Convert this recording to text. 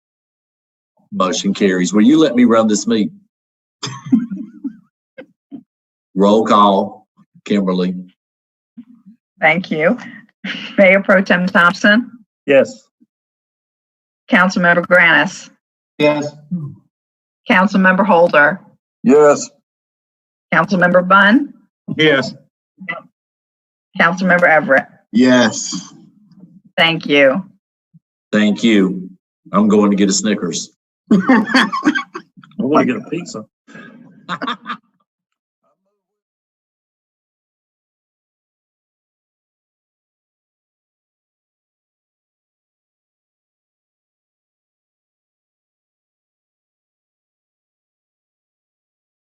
Motion carries. Will you let me run this meeting? Roll call, Kimberly. Thank you. Mayor Pro Tem Thompson, Yes. Councilmember Granath, Yes. Councilmember Holder, Yes. Councilmember Bun, Yes. Councilmember Everett. Yes. Thank you. Thank you. I'm going to get a Snickers. I want to get a pizza. I